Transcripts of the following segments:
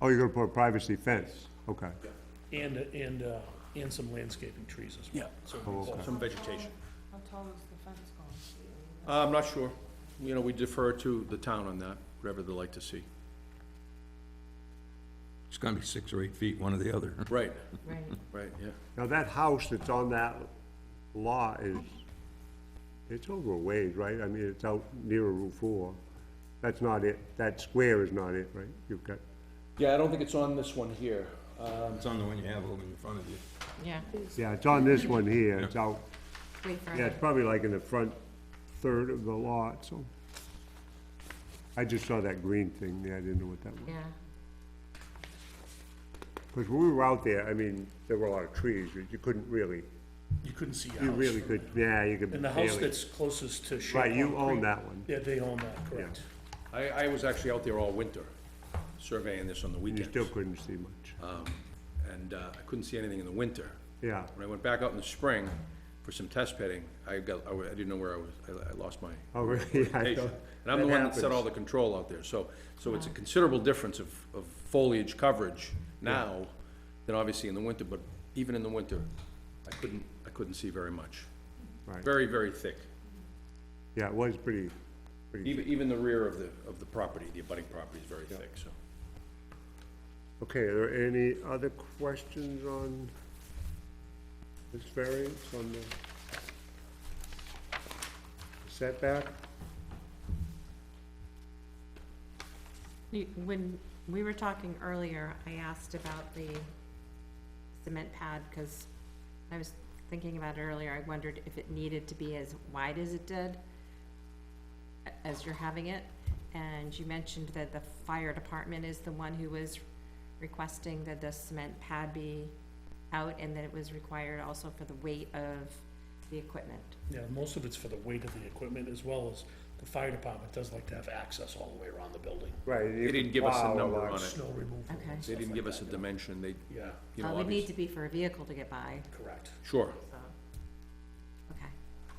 Oh, you're gonna put a privacy fence, okay. and, and, uh, and some landscaping trees as well. So Oh, okay. some vegetation. How tall is the fence going to be? Uh, I'm not sure. You know, we defer to the town on that, whatever they like to see. It's gonna be six or eight feet, one or the other. Right, Right. right, yeah. Now, that house that's on that lot is, it's over a ways, right? I mean, it's out near Route Four. That's not it, that square is not it, right? You've got, Yeah, I don't think it's on this one here. It's on the one you have over in front of you. Yeah, yeah, it's on this one here, it's out, way yeah, further. it's probably like in the front third of the lot, so. I just saw that green thing, yeah, I didn't know what that was. Yeah, Because when we were out there, I mean, there were a lot of trees, you you couldn't really, You couldn't see a you house. really could, yeah, you could And the house barely. that's closest to Shaw Right, you Concrete- own that one. Yeah, they own that, correct. I, I was actually out there all winter surveying this on the You weekends. um, still couldn't see Uh, much, And, uh, I couldn't see anything in the winter. yeah. When I went back out in the spring for some test pitting, I got, I wa- I didn't know where I was, I, I lost my Oh, really? Yeah, I patient. know. And I'm the one that set happens. all the control out there, so, so it's a considerable difference of, of foliage coverage now than obviously in the winter, but even in the winter, I couldn't, I couldn't see very much. Right. Very, very thick, Yeah, it was pretty, pretty, even, even the rear of the, of the property, the abutting property is very thick, so. okay, are there any other questions on this variance on the setback? You- when we were talking earlier, I asked about the cement pad, because I was thinking about it earlier, I wondered if it needed to be as wide as it did, a- as you're having it, and you mentioned that the fire department is the one who was requesting that the cement pad be out, and that it was required also for the weight of the equipment. Yeah, most of it's for the weight of the equipment as well as the fire department does like to have access all the way around the building. Right. They didn't give us a number on it, Snow removal. and Okay. They they stuff didn't like give that. us a dimension, they, Yeah, you Uh, know, would need obviously. to be for a vehicle to get by, correct. Sure, so, okay.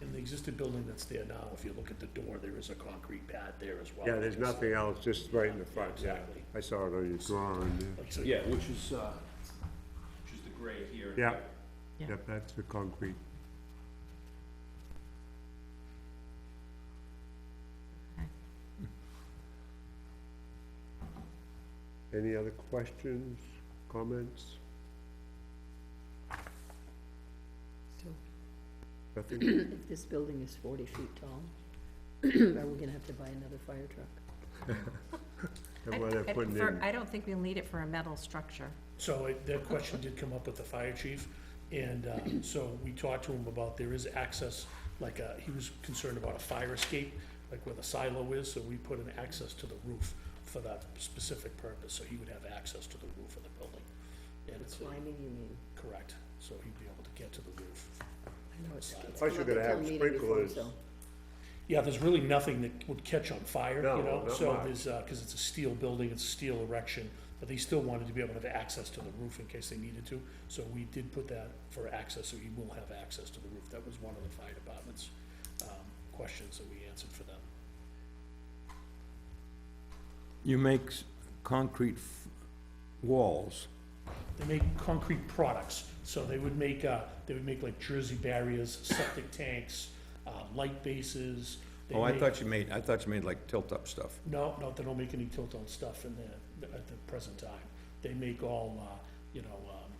In the existing building that's there now, if you look at the door, there is a concrete pad there as well. Yeah, there's nothing else, just right in the front, yeah. Exactly. I saw it on your drawing, yeah. Like, so- yeah, which is, uh, which is the gray here. Yeah. Yeah. Yep, that's the concrete. Any other questions, comments? So Nothing? if this building is forty feet tall, are we gonna have to buy another fire truck? And what they're I- I putting prefer- in, I don't think we'll need it for a metal structure. So it- that question did come up with the fire chief, and uh, so we talked to him about there is access, like, uh, he was concerned about a fire escape, like where the silo is, so we put an access to the roof for that specific purpose, so he would have access to the roof of the building. And it's, uh, Climbing, you mean? correct, so he'd be able to get to the roof. I know it's. it's Plus you're come up gonna at have town meeting before, sprinklers. so- Yeah, there's really nothing that would catch on fire, you No, know, not so much. there's, uh 'cause cause it's a steel building, it's steel erection, but they still wanted to be able to have access to the roof in case they needed to, so we did put that for access, so you will have access to the roof, that was one of the fire department's, um, questions that we answered for them. You make s- concrete f- walls. They make concrete products, so they would make, uh, they would make like jersey barriers, septic tanks, uh, light bases. They Oh, I make- thought you made, I thought you made like tilt-up stuff. No, no, they don't make any tilt-on stuff in the, at the present time. They make all, uh, you know, um,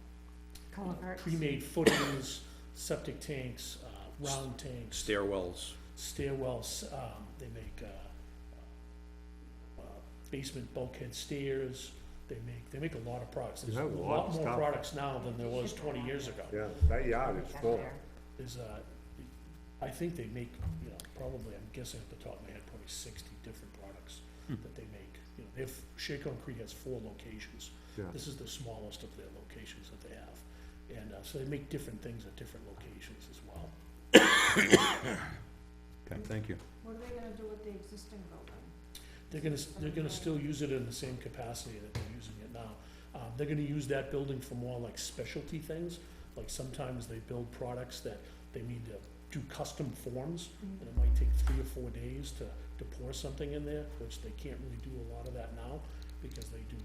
Culverts. pre-made footings, septic tanks, uh, round tanks, Stairwells. stairwells, um, they make, uh, uh, basement bulkhead stairs, they make, they make a lot of products. There's They a have a lot lot of more stuff. products now than there was twenty years ago. yeah, that yard is Back full. there. There's, uh, I think they make, you know, probably, I'm guessing at the top of my head, probably sixty different products that they make. You know, they have, Shea Concrete has four locations. Yeah. This is the smallest of their locations that they have. And, uh, so they make different things at different locations as well. Okay, thank you. What are they gonna do with the existing building? They're gonna, they're gonna still use it in the same capacity that they're using it now. Um, they're gonna use that building for more like specialty things, like sometimes they build products that they need to do custom forms, and it might take three or four days to, to pour something in there, which they can't really do a lot of that now, because they do